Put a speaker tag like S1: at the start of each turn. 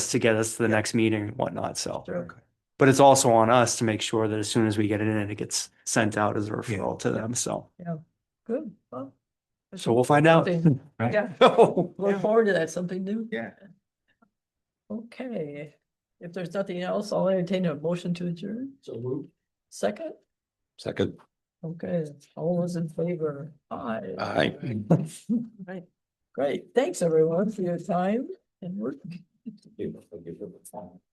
S1: to get us to the
S2: Yeah.
S1: next meeting and whatnot, so.
S2: Sure.
S1: But it's also on us to make sure that as soon as we get it in, it gets sent out as a referral to them, so,
S2: Yeah, good, well. that's
S1: so we'll find out.
S2: something- Yeah,
S1: Yeah.
S2: look forward to that, something new.
S3: Yeah.
S2: Okay, if there's nothing else, I'll entertain a motion to adjourn. So move. Second,
S3: Second.
S2: okay, all those in favor, aye.
S3: Aye.
S2: Right, great, thanks everyone for your time and work.